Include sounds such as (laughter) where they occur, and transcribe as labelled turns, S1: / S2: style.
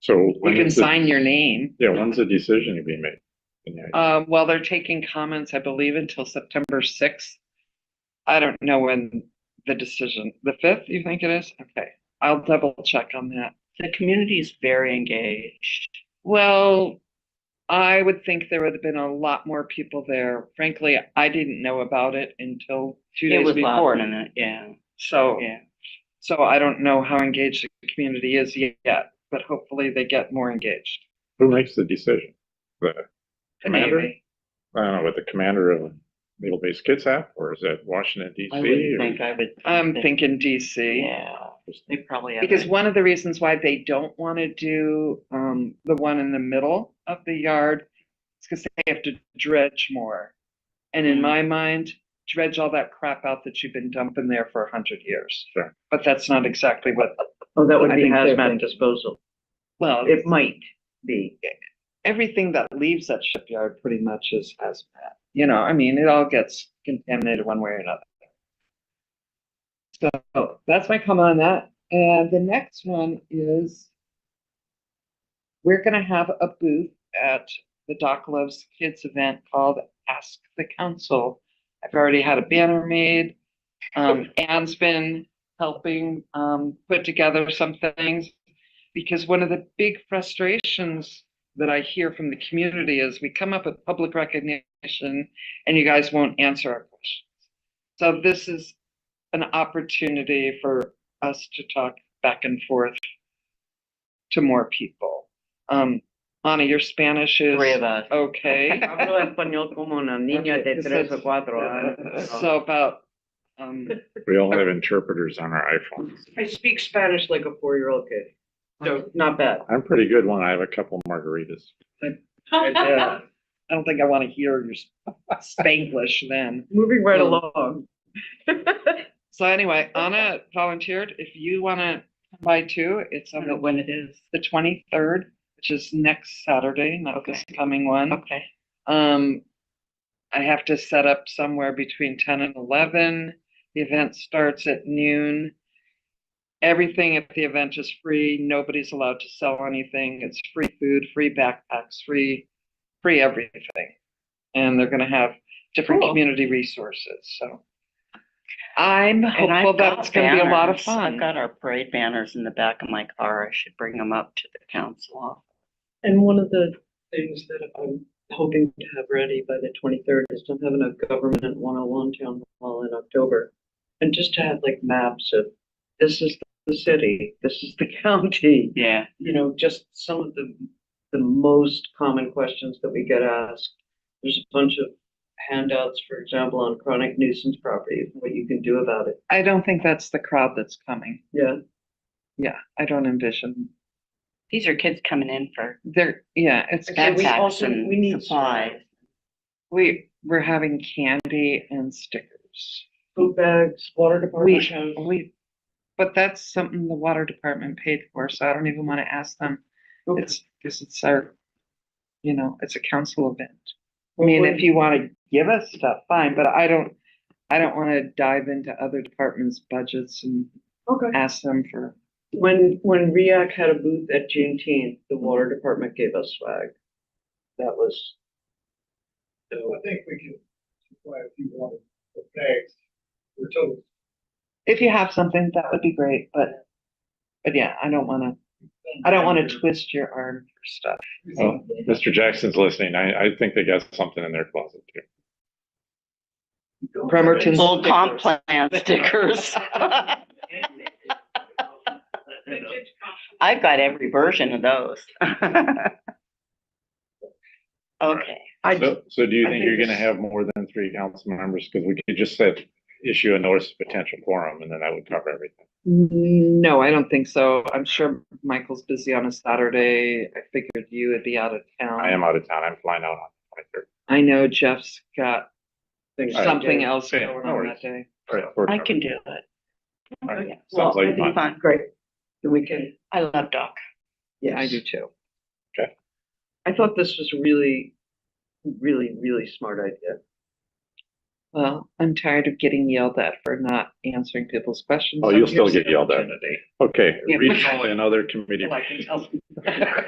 S1: So.
S2: You
S1: when
S2: can
S1: is the-
S2: sign your name.
S1: Yeah, when's the decision to be made? Yeah,
S2: Um, well, they're taking comments, I believe, until September sixth. I don't know when the decision, the fifth, you think it is? Okay, I'll double check on that.
S3: The community is very engaged.
S2: Well, I would think there would have been a lot more people there. Frankly, I didn't know about it until two
S3: It
S2: days
S3: was last
S2: before.
S3: minute, yeah,
S2: So,
S3: yeah.
S2: so I don't know how engaged the community is yet, but hopefully they get more engaged.
S1: Who makes the decision? The,
S2: The
S1: Commander?
S2: Navy.
S1: I don't know, what the commander of Naval Base Kids have, or is that Washington DC?
S3: I would
S1: or-
S3: think I would.
S2: I'm thinking DC.
S3: Yeah, they probably have.
S2: Because
S3: a-
S2: one of the reasons why they don't want to do um, the one in the middle of the yard is because they have to dredge more. And in
S3: Mm.
S2: my mind, dredge all that crap out that you've been dumping there for a hundred years.
S1: Sure.
S2: But that's not exactly what,
S4: Oh, that would
S2: I
S4: be
S2: think
S4: hazmat
S2: hazmat
S4: disposal.
S2: well,
S4: It might be.
S2: everything that leaves that shipyard pretty much is hazmat. You know, I mean, it all gets contaminated one way or another. So that's my comment on that. And the next one is we're gonna have a booth at the Doc Loves Kids event called Ask the Council. I've already had a banner made. Um, Anne's been helping, um, put together some things. Because one of the big frustrations that I hear from the community is we come up with public recognition and you guys won't answer our questions. So this is an opportunity for us to talk back and forth to more people. Um, Ana, your Spanish is
S3: Three of us. (laughs)
S2: okay.
S4: Hablo español como una niña de
S2: Okay,
S4: tres
S2: so-
S4: o cuatro años.
S2: So about, um,
S1: We all have interpreters on our iPhones.
S4: I speak Spanish like a four-year-old kid, so not
S3: (laughs)
S4: bad.
S1: I'm pretty good when I have a couple margaritas.
S2: yeah, I don't think I want to hear your Spanglish then.
S4: Moving right
S2: Mm.
S4: along. (laughs)
S2: So anyway, Anna volunteered. If you want to come by too, it's
S3: I
S2: on
S3: don't know
S2: the
S3: when it is.
S2: the twenty-third, which is next Saturday, not this coming one.
S3: Okay.
S2: Um, I have to set up somewhere between ten and eleven. The event starts at noon. Everything at the event is free. Nobody's allowed to sell anything. It's free food, free backpacks, free, free everything. And they're gonna have different
S3: Cool.
S2: community resources, so. I'm
S3: And I've
S2: hopeful that
S3: got
S2: it's gonna be a lot of
S3: banners.
S2: fun.
S3: I've got our parade banners in the back of my car. I should bring them up to the council.
S4: And one of the things that I'm hoping to have ready by the twenty-third is to have a government one-on-one town hall in October. And just to have like maps of, this is the city, this is the (laughs) county,
S3: Yeah,
S4: you know, just some of the, the most common questions that we get asked. There's a bunch of handouts, for example, on chronic nuisance property, what you can do about it.
S2: I don't think that's the crowd that's coming.
S4: Yeah,
S2: Yeah, I don't envision.
S3: these are kids coming in for
S2: There, yeah, it's,
S4: Okay, we
S3: backpacks
S4: also- we need
S3: and
S4: to-
S3: supplies.
S2: we, we're having candy and stickers.
S4: food bags, water department.
S2: We,
S4: has-
S2: we, but that's something the water department paid for, so I don't even want to ask them.
S4: Okay.
S2: It's, because it's our, you know, it's a council event. I mean, if you want to give us stuff, fine, but I don't, I don't want to dive into other departments' budgets and
S4: Okay.
S2: ask them for,
S4: When, when REAC had a booth at Juneteenth, the water department gave us swag. That was.
S5: I think we can supply a few water bags. We're told
S2: if you have something, that would be great, but, but yeah, I don't want to. I don't want to twist your arm for stuff.
S1: Oh, Mr. Jackson's listening. I, I think they got something in their closet too.
S5: (laughs)
S2: Bremerton's-
S3: Old comp
S4: (laughs)
S3: plan stickers. I've got every version of those. (laughs) Okay,
S1: So, so do you
S2: I
S1: think
S2: think
S1: you're gonna
S2: it's-
S1: have more than three council members? Cause we could just say, issue a notice of potential quorum and then that would cover everything.
S2: No, I don't think so. I'm sure Michael's busy on a Saturday. I figured you would be out of town.
S1: I am out of town. I'm flying out on the twenty-third.
S2: I know Jeff's got
S4: things to
S2: something
S4: do.
S2: else
S1: Yeah,
S2: going
S1: no
S2: on
S1: worries.
S2: that day.
S3: I can do it.
S1: Alright,
S3: Yeah.
S1: sounds like
S3: It'll be
S1: fun.
S3: fun.
S4: Great. The weekend.
S3: I love Doc.
S4: Yes.
S2: I do too.
S4: I thought this was really, really, really smart idea.
S2: Well, I'm tired of getting yelled at for not answering people's questions.
S1: Oh,
S2: I'm
S1: you'll still
S2: here's
S1: get
S2: the
S1: yelled at.
S2: opportunity.
S1: Okay,
S2: Yeah.
S1: regional and other committee (laughs)
S2: Well, I can tell
S1: members.